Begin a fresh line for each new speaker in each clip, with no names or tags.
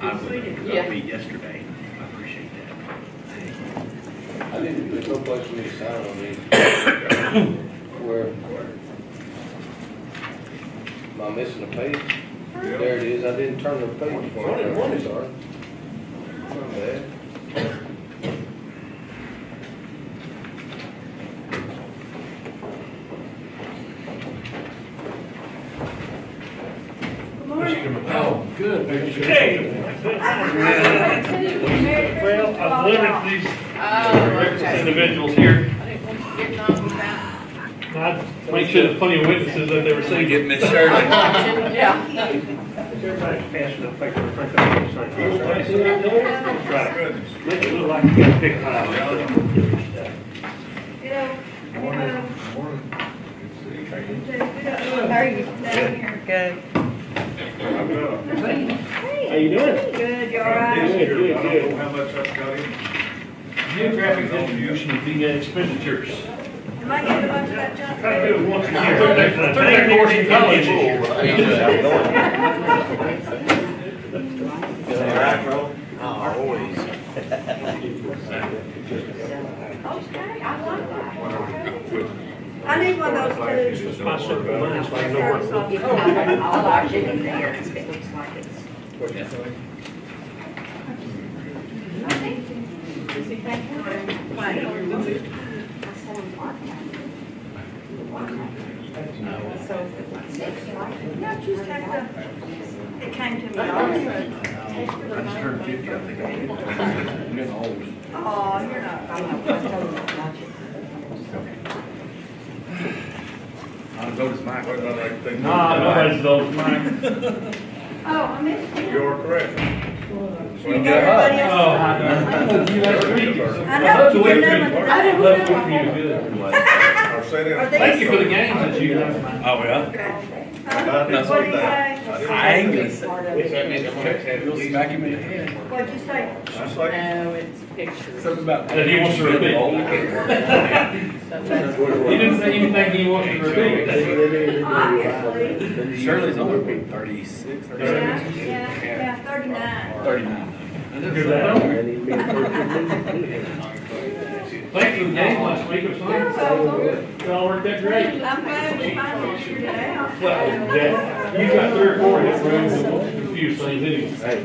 I was upbeat yesterday. I appreciate
I think there's no place for me to sign on these. Where? Am I missing a page? There it is, I didn't turn the page for it.
One
is ours.
Oh, good.
Well,
Well,
I've limited these Oh, individuals here. I make sure there's plenty of witnesses that they were saying. Get Miss Shirley.
Yeah.
Everybody's passing the paper, I think that's right. Right. Make it look like you got a big pile.
You know, we don't here.
Good.
How you doing?
Good, you all right?
Good, good, good.
How much I've got in?
Geographic distribution of the expenditures.
Am I getting a bunch of that junk?
Try to do it once a year. Took that- took that course in college.
Okay, I like that. I need one of those too.
It's my simple mind, so I know where to look.
I'll watch it in there. It looks like it's.
No, just take the, it came to me also.
that. I just turned fifty, I think. I'm getting old.
Oh, you're not.
I'm going to
What about that thing?
Nah, nobody's those, mine.
Oh, I missed you.
You're correct.
Everybody
Oh,
else.
I know. You have to read it.
I know, you remember, I didn't
Left
remember.
with you, good.
Or say that.
Are they-
Thank you for the games that you have.
Oh, yeah?
Huh? What do you say?
I ain't gonna say.
It's
Smack him in the head.
What'd you say?
like,
No, it's pictures.
Something about.
That he wants to repeat. He didn't say anything he wanted to repeat.
Obviously.
Shirley's only thirty-six, thirty-seven.
Yeah, yeah, yeah, thirty-nine.
Thirty-nine.
Thank you for the game last week or
You're
something.
welcome.
It all worked out great.
I'm glad we finally figured it out.
Well, that- you got three or four hit rooms and a few things, didn't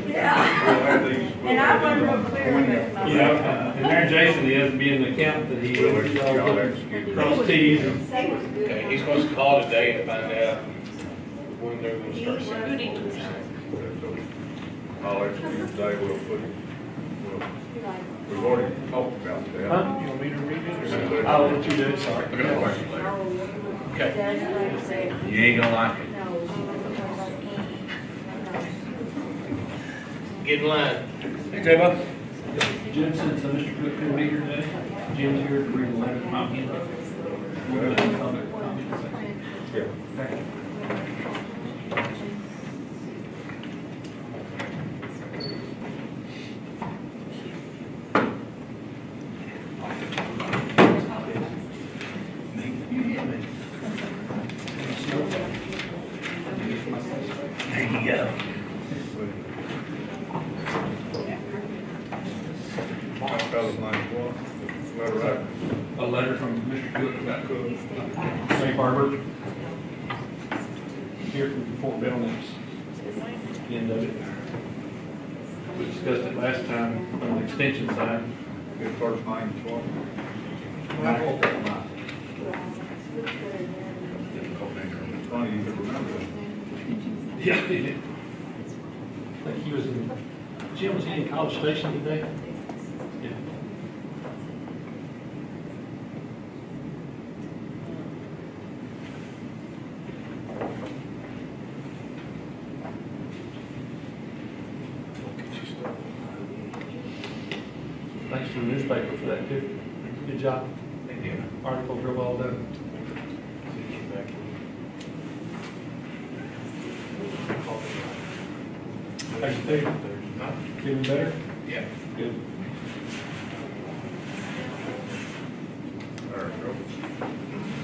you?
Yeah,
we'll have these.
and I wasn't real clear on it myself.
You know, and Mayor Jason, he hasn't been an accountant that he
We'll
was
y'all execute.
cross T's and
Say what's good.
Okay, he's supposed to call today to find out when they're gonna start sending.
I'll execute today, we'll put, it- we'll, we've already talked about that.
Huh?
You want me to read it?
I'll let you do it.
I got a question later.
Okay,
You ain't gonna like it.
get in line.
Jim said, so Mr. Cook couldn't be here today. Jim's here to read the letter from him. We're gonna come to comments section.
There you go.
My fellow's name was, letter I
A letter from Mr. Cook about
cooked.
Safe Harbor. Here from Fort Bell next. End of it. We discussed it last time on the extension side.
His first name is what? It's Funny you could remember that.
Yeah. I think he was in, Jim, was he in College Station today? Yeah. Thanks to the newspaper for that too. Good job. Article real well done. How you feel? Feeling better?
Yeah.
Good.
There it goes.